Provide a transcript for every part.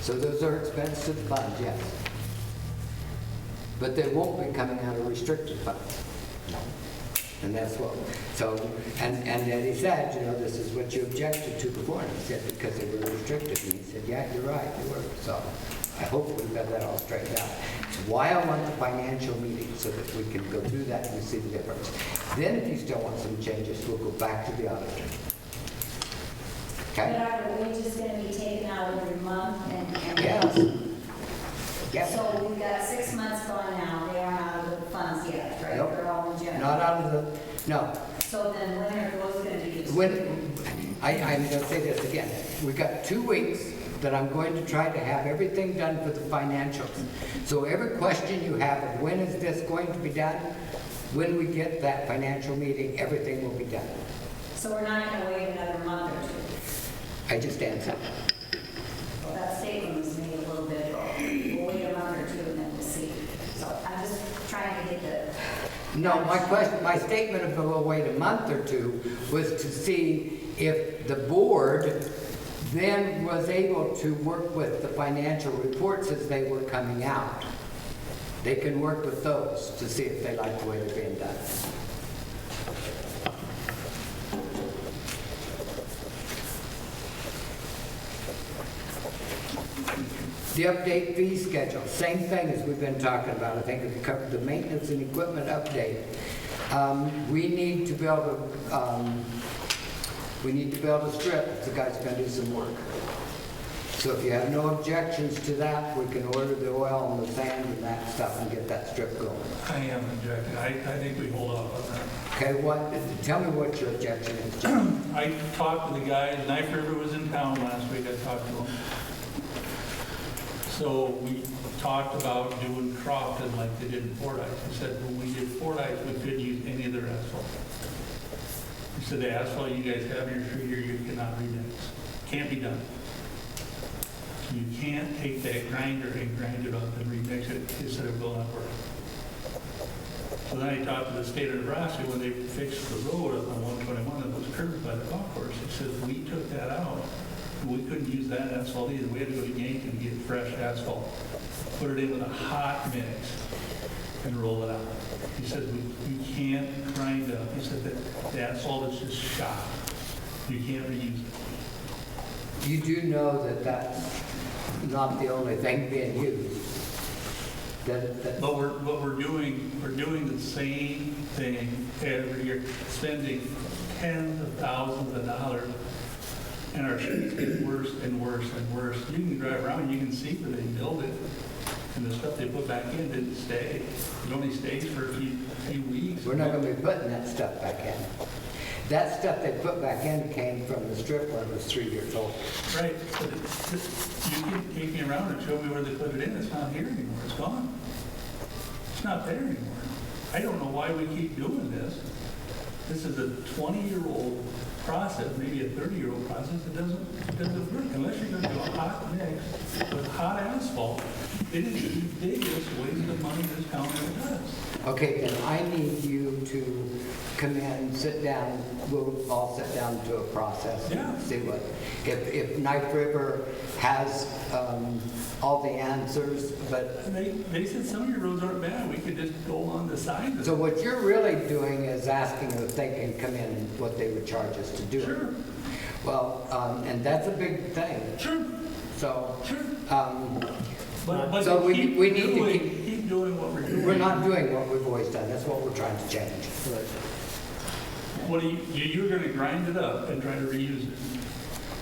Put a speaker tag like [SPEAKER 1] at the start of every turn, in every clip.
[SPEAKER 1] So those are expensive funds, yes. But they won't be coming out of restricted funds. No. And that's what, so, and, and then he said, you know, this is what you objected to before, and he said, because they were restricted, and he said, yeah, you're right, you were, so I hope we've got that all straightened out. It's Why I want the financial meeting, so that we can go through that and see the difference. Then if you still want some changes, we'll go back to the auditor.
[SPEAKER 2] But
[SPEAKER 1] Okay?
[SPEAKER 2] are we just gonna be taken out every month and? and-
[SPEAKER 1] Yes. Yes.
[SPEAKER 2] So we've got six months gone now, they aren't out of the funds yet, right?
[SPEAKER 1] Nope.
[SPEAKER 2] They're all in general.
[SPEAKER 1] Not out of the, no,
[SPEAKER 2] So then when are those gonna be used?
[SPEAKER 1] When, I, I'm gonna say this again, we've got two weeks that I'm going to try to have everything done for the financials. So every question you have of when is this going to be done, when we get that financial meeting, everything will be done.
[SPEAKER 2] So we're not gonna wait another month or two.
[SPEAKER 1] I just answered.
[SPEAKER 2] Well, That statement was made a little bit, we'll wait a month or two and then we'll see. So I'm just trying to get the,
[SPEAKER 1] No, my question, my statement of, we'll wait a month or two was to see if the board then was able to work with the financial reports as they were coming out. They can work with those to see if they like the way they're being done. The update fee schedule, same thing as we've been talking about, I think we covered the maintenance and equipment update. Um, we need to build a, um, we need to build a strip, if the guy's gonna do some work. So if you have no objections to that, we can order the oil and the sand and that stuff and get that strip going.
[SPEAKER 3] I am objecting. I, I think we hold off on that.
[SPEAKER 1] Okay, what, tell me what your objection is, Jim.
[SPEAKER 3] I talked to the guy, Knife River was in town last week, I talked to him. So we talked about doing Crofton like they did in Fordyce. He said, when we did Fordyce, we couldn't use any of their asphalt. He said, the asphalt you guys have in your street here, you cannot remix. Can't be done. You can't take that grinder and grind it up and remix it. He said, it will not work. So then I talked to the state of Nebraska when they fixed the road up on 121 that was curved by the golf course. It says, we took that out. We couldn't use that asphalt either. We had to go to Yankton and get fresh asphalt, put it in with a hot mix and roll it out. He says, we, you can't grind up. He said that the asphalt is just shot. You can't reuse it.
[SPEAKER 1] You do know that that's not the only thing being used. That, that,
[SPEAKER 3] But we're, but we're doing, we're doing the same thing every year, spending tens of thousands of dollars, and our streets get worse and worse and worse. You can drive around, you can see where they build it, and the stuff they put back in didn't stay. It only stays for a few, few weeks.
[SPEAKER 1] we're not gonna be putting that stuff back in. That stuff they put back in came from the strip when it was three years old.
[SPEAKER 3] Right, but it's just, you can take me around and show me where they put it in, it's not here anymore, it's gone. It's not there anymore. I don't know why we keep doing this. This is a 20-year-old process, maybe a 30-year-old process, it doesn't, it doesn't work unless you're gonna do a hot mix with hot asphalt. It is the biggest waste of money this town ever does.
[SPEAKER 1] Okay, then I need you to come in, sit down, we'll all sit down to a process
[SPEAKER 3] Yeah.
[SPEAKER 1] and see what, if, if Knife River has, um, all the answers, but
[SPEAKER 3] And they, they said some of your roads aren't bad, we could just go on the side of
[SPEAKER 1] So
[SPEAKER 3] it.
[SPEAKER 1] what you're really doing is asking if they can come in and what they would charge us to do. it.
[SPEAKER 3] Sure.
[SPEAKER 1] Well, um, and that's a big thing,
[SPEAKER 3] Sure,
[SPEAKER 1] so,
[SPEAKER 3] sure.
[SPEAKER 1] um,
[SPEAKER 3] But, but
[SPEAKER 1] So
[SPEAKER 3] to
[SPEAKER 1] we-
[SPEAKER 3] keep
[SPEAKER 1] we need to
[SPEAKER 3] doing-
[SPEAKER 1] keep-
[SPEAKER 3] Keep doing what we're doing.
[SPEAKER 1] we're not doing what we've always done, that's what we're trying to change.
[SPEAKER 3] What do you, you- you're gonna grind it up and try to reuse it.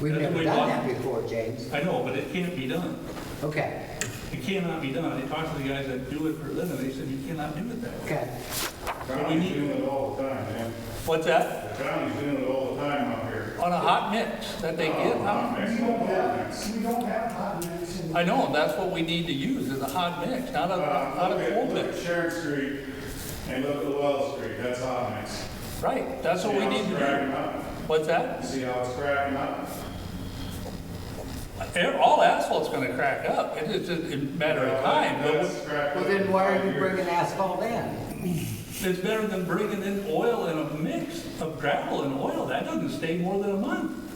[SPEAKER 1] We've
[SPEAKER 3] That's
[SPEAKER 1] never
[SPEAKER 3] what we
[SPEAKER 1] done
[SPEAKER 3] want.
[SPEAKER 1] that before, James.
[SPEAKER 3] I know, but it can't be done.
[SPEAKER 1] Okay,
[SPEAKER 3] It cannot be done. I talked to the guys that do it for a living, they said, you cannot do it that way.
[SPEAKER 1] okay,
[SPEAKER 4] County's doing it all the time, man.
[SPEAKER 3] What's that?
[SPEAKER 4] The county's doing it all the time out here.
[SPEAKER 3] On a hot mix that they get?
[SPEAKER 4] Oh,
[SPEAKER 3] huh?
[SPEAKER 5] We
[SPEAKER 4] man.
[SPEAKER 5] don't have, we don't have hot mix in.
[SPEAKER 3] I know, and that's what we need to use, is a hot mix, not a,
[SPEAKER 4] Uh,
[SPEAKER 3] not
[SPEAKER 4] Look
[SPEAKER 3] a
[SPEAKER 4] at,
[SPEAKER 3] cold
[SPEAKER 4] look at
[SPEAKER 3] mix.
[SPEAKER 4] Sharon Street and look at Wells Street, that's hot mix.
[SPEAKER 3] Right, that's what we need
[SPEAKER 4] See how it's
[SPEAKER 3] to
[SPEAKER 4] cracking up?
[SPEAKER 3] do. What's that?
[SPEAKER 4] See how it's cracking up?
[SPEAKER 3] Air- All asphalt's gonna crack up. It is just a matter of time. But
[SPEAKER 4] That's cracked
[SPEAKER 1] well
[SPEAKER 4] up
[SPEAKER 1] then why are
[SPEAKER 4] five
[SPEAKER 1] you
[SPEAKER 4] years.
[SPEAKER 1] bringing asphalt in?
[SPEAKER 3] It's better than bringing in oil and a mix of gravel and oil. That doesn't stay more than a month.